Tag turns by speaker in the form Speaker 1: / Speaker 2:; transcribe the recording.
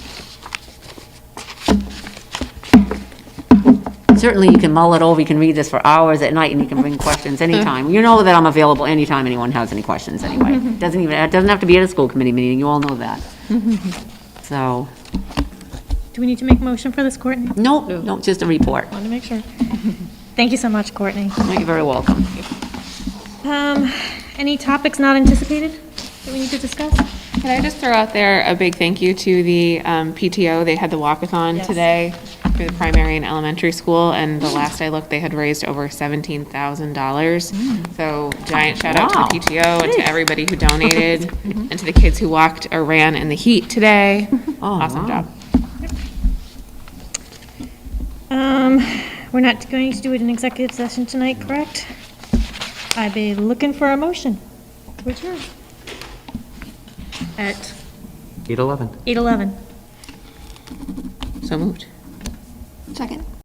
Speaker 1: certainly you can mull it over, you can read this for hours at night, and you can bring questions anytime. You know that I'm available anytime anyone has any questions, anyway. Doesn't even, it doesn't have to be at a school committee meeting, you all know that. So,
Speaker 2: Do we need to make a motion for this, Courtney? Want
Speaker 1: no, no, just a report.
Speaker 2: to make sure. Thank you so much, Courtney.
Speaker 1: You're very welcome.
Speaker 2: Um, Any topics not anticipated that we need to discuss?
Speaker 3: Can I just throw out there a big thank you to the um, PTO? They had the walkathon
Speaker 2: Yes.
Speaker 3: today for the primary and elementary school, and the last I looked, they had raised over $17,000. So giant shout out
Speaker 1: Wow.
Speaker 3: to the PTO and to everybody who donated, and to the kids who walked or ran in the heat today.
Speaker 1: Oh,
Speaker 3: Awesome
Speaker 1: wow.
Speaker 3: job.
Speaker 2: Um, We're not going to do it in executive session tonight, correct? I'd be looking for a motion. Which one? At
Speaker 4: 811.
Speaker 2: 8:11.
Speaker 3: So moved.
Speaker 5: Second.